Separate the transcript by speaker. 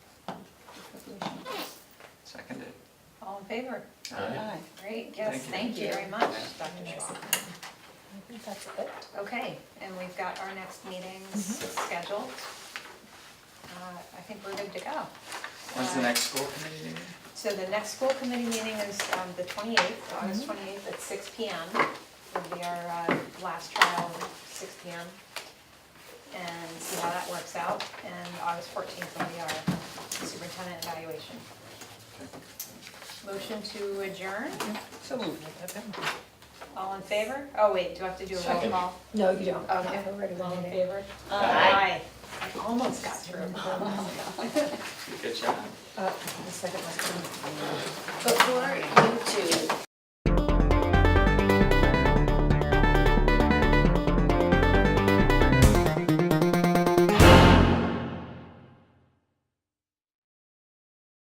Speaker 1: favor?
Speaker 2: Aye.
Speaker 1: Great, yes,
Speaker 2: Thank
Speaker 1: thank you very much, Dr. Schwab.
Speaker 3: I think that's it.
Speaker 1: Okay, and we've got our next meetings
Speaker 2: Mm-hmm.
Speaker 1: scheduled. Uh, I think we're good to go. Uh,
Speaker 2: When's the next school committee meeting?
Speaker 1: So the next school committee meeting is um, the 28th,
Speaker 3: Mhm.
Speaker 1: August 28th at 6 PM. Will be our uh, last trial, 6 PM. And see how that works out. And August 14th will be our superintendent evaluation. Motion to adjourn,
Speaker 3: So moved.
Speaker 1: all in favor? Oh, wait, do I have to do a roll
Speaker 2: Second.
Speaker 1: call?
Speaker 3: No, you don't. Um,
Speaker 1: Okay.
Speaker 3: I've already
Speaker 1: All in
Speaker 3: voted.
Speaker 1: favor?
Speaker 2: Aye.
Speaker 1: Aye. I almost got through.
Speaker 2: Good job.
Speaker 3: Uh, The second last one.
Speaker 4: Before you